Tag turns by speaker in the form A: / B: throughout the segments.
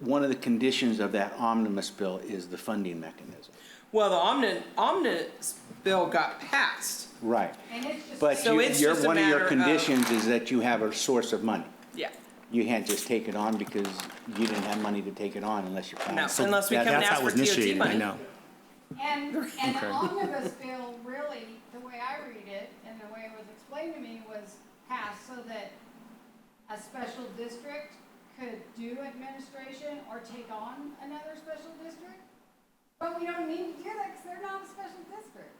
A: one of the conditions of that omnibus bill is the funding mechanism.
B: Well, the omni omnibus bill got passed.
A: Right.
C: And it's just-
A: But
B: So
A: you-
B: it's
A: your,
B: just a
A: one of your
B: matter of-
A: conditions is that you have a source of money.
B: Yeah.
A: You can't just take it on because you didn't have money to take it on unless you found.
B: No.
A: some-
B: Unless we
D: That-
B: come and
D: that's
B: ask
D: how it was
B: for TOT
D: initiated, I
B: money.
D: know.
C: And, and
D: Okay.
C: the omnibus bill, really, the way I read it and the way it was explained to me was passed so that a special district could do administration or take on another special district. But we don't need to do that because they're not a special district.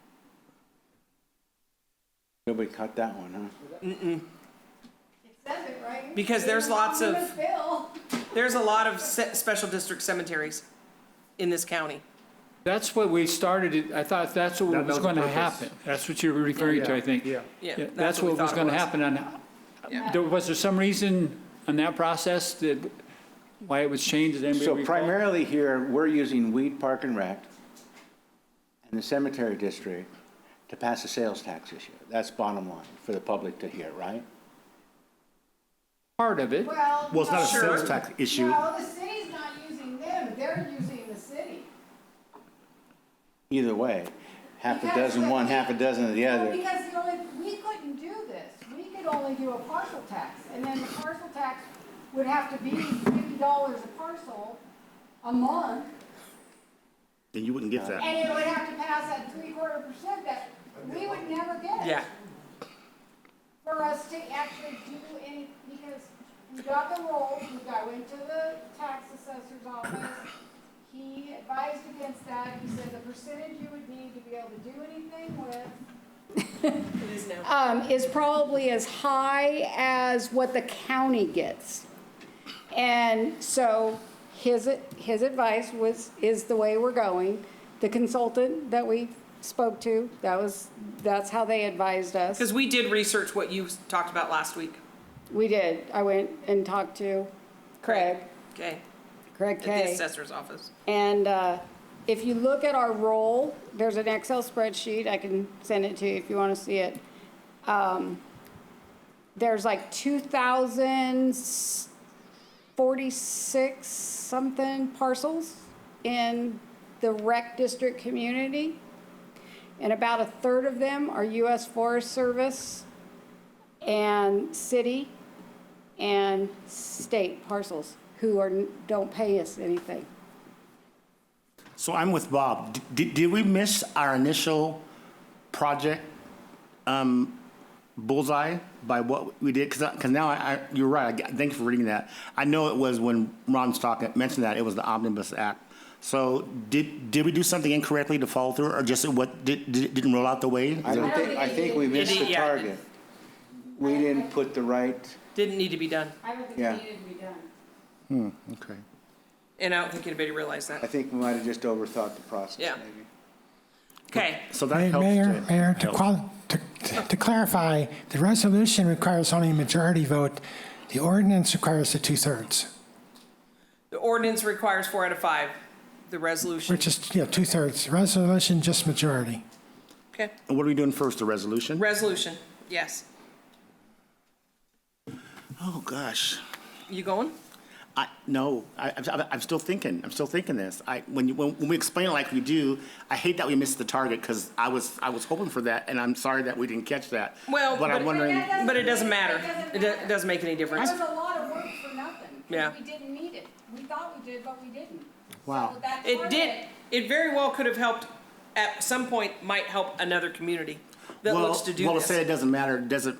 A: Nobody caught that one, huh?
C: It says it, right?
B: Because there's
C: In the
B: lots of-
C: omnibus bill.
B: There's a lot of se- special district cemeteries in this county.
E: That's what we started, it- I thought that's what
D: That
E: was
D: was the
E: going to
D: purpose.
E: happen. That's what you're referring to, I think.
D: Yeah.
B: Yeah, that's
E: That's
B: what we
E: what was
B: thought it
E: going to
B: was.
E: happen on, there- was there some reason on that process that, why it was changed? Does anybody
A: So
E: recall?
A: primarily here, we're using Weed Park and Rec and the Cemetery District to pass a sales tax issue. That's bottom line for the public to hear, right?
E: Part of it.
C: Well.
D: Well, it's not a
C: no.
D: sales tax issue.
C: No, the city's not using them. They're using the city.
A: Either way, half a
C: Because
A: dozen
C: the-
A: one, half a dozen of the
C: Well,
A: other.
C: Because the only, we couldn't do this, we could only do a parcel tax, and then the parcel tax would have to be fifty dollars a parcel a month,
D: And you wouldn't get that.
C: and it would have to pass at three quarter percent that we would never get.
B: Yeah.
C: For us to actually do any, because we got the roll, we got, went to the tax assessor's office, he advised against that, he said the percentage you would need to be able to do anything with
B: It is now.
C: um, is probably as high as what the county gets. And so his, his advice was, is the way we're going. The consultant that we spoke to, that was, that's how they advised us.
B: Because we did research what you talked about last week.
C: We did. I went and talked to Craig,
B: Okay.
C: Craig
B: At the
C: Kay.
B: assessor's office.
C: And uh, if you look at our roll, there's an Excel spreadsheet, I can send it to you if you want to see it. Um, There's like 2,046 something parcels in the rec district community. And about a third of them are US Forest Service and city and state parcels who are, don't pay us anything.
D: So I'm with Bob. D- Did, did we miss our initial project um, bullseye by what we did? Because, because now I, I- you're right. I g- Thank you for reading that. I know it was when Ron Stock mentioned that, it was the Omnibus Act. So did, did we do something incorrectly to follow through or just what, did, did- didn't roll out the way?
A: I don't think, I think we missed the
B: Yeah.
A: target. We didn't put the right,
B: Didn't need to be done.
C: I don't think
A: Yeah.
C: it needed to be done.
D: Okay.
B: And I don't think anybody realized
A: I
B: that.
A: think we might have just overthought the process,
B: Yeah.
A: maybe.
B: Okay.
D: So that
F: Mayor,
D: helps.
F: Mayor,
D: to-
F: Mayor, to
D: helps.
F: quali, to, to clarify, the resolution requires only a majority vote. The ordinance requires a two-thirds,
B: The ordinance requires four out of five. The resolution.
F: which is, you know, two-thirds. Resolution, just majority.
B: Okay.
D: And What are we doing first, the resolution?
B: Resolution. Yes.
D: Oh, gosh.
B: You going?
D: I, no, I, I'm, I'm still thinking. I'm still thinking this. I, when, you, when, when we explain it like we do, I hate that we missed the target because I was, I was hoping for that, and I'm sorry that we didn't catch that.
B: Well,
D: but I'm
B: but-
D: wondering.
B: But it doesn't matter. It do- it doesn't make any
C: That
B: difference.
C: was a lot of work for nothing. 'cause
B: Yeah.
C: We didn't need it. We thought we did, but we didn't.
D: Wow.
C: So that's part
B: It
C: of
B: did. It very well could have helped. At some point, might help another community that
D: well,
B: looks to do
D: well,
B: this.
D: say it doesn't matter. Doesn't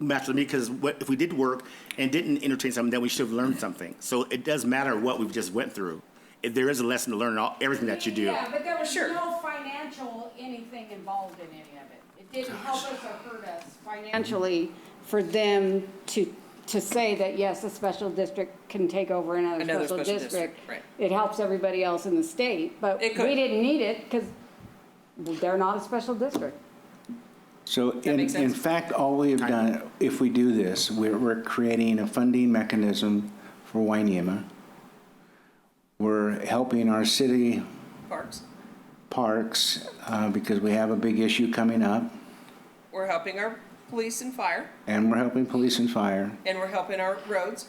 D: matter to me because what, if we did work and didn't entertain something, then we should have learned something. So it does matter what we've just went through. If there is a lesson to learn in all, everything that you do.
C: Yeah, but there was
B: Sure.
C: no financial anything involved in any of it. It didn't help us or hurt us financially for them to, to say that, yes, a special district can take over another
B: Another
C: special
B: special
C: district.
B: district, right.
C: It helps everybody else in the state, but we
B: It could.
C: didn't need it because they're not a special district.
A: So in,
B: make
A: in
B: sense?
A: fact, all we have done, if we do this, we're, we're creating a funding mechanism for Wainema. We're helping our city
B: Parks.
A: parks, uh, because we have a big issue coming up,
B: We're helping our police and fire,
A: and we're helping police and fire.
B: and we're helping our roads.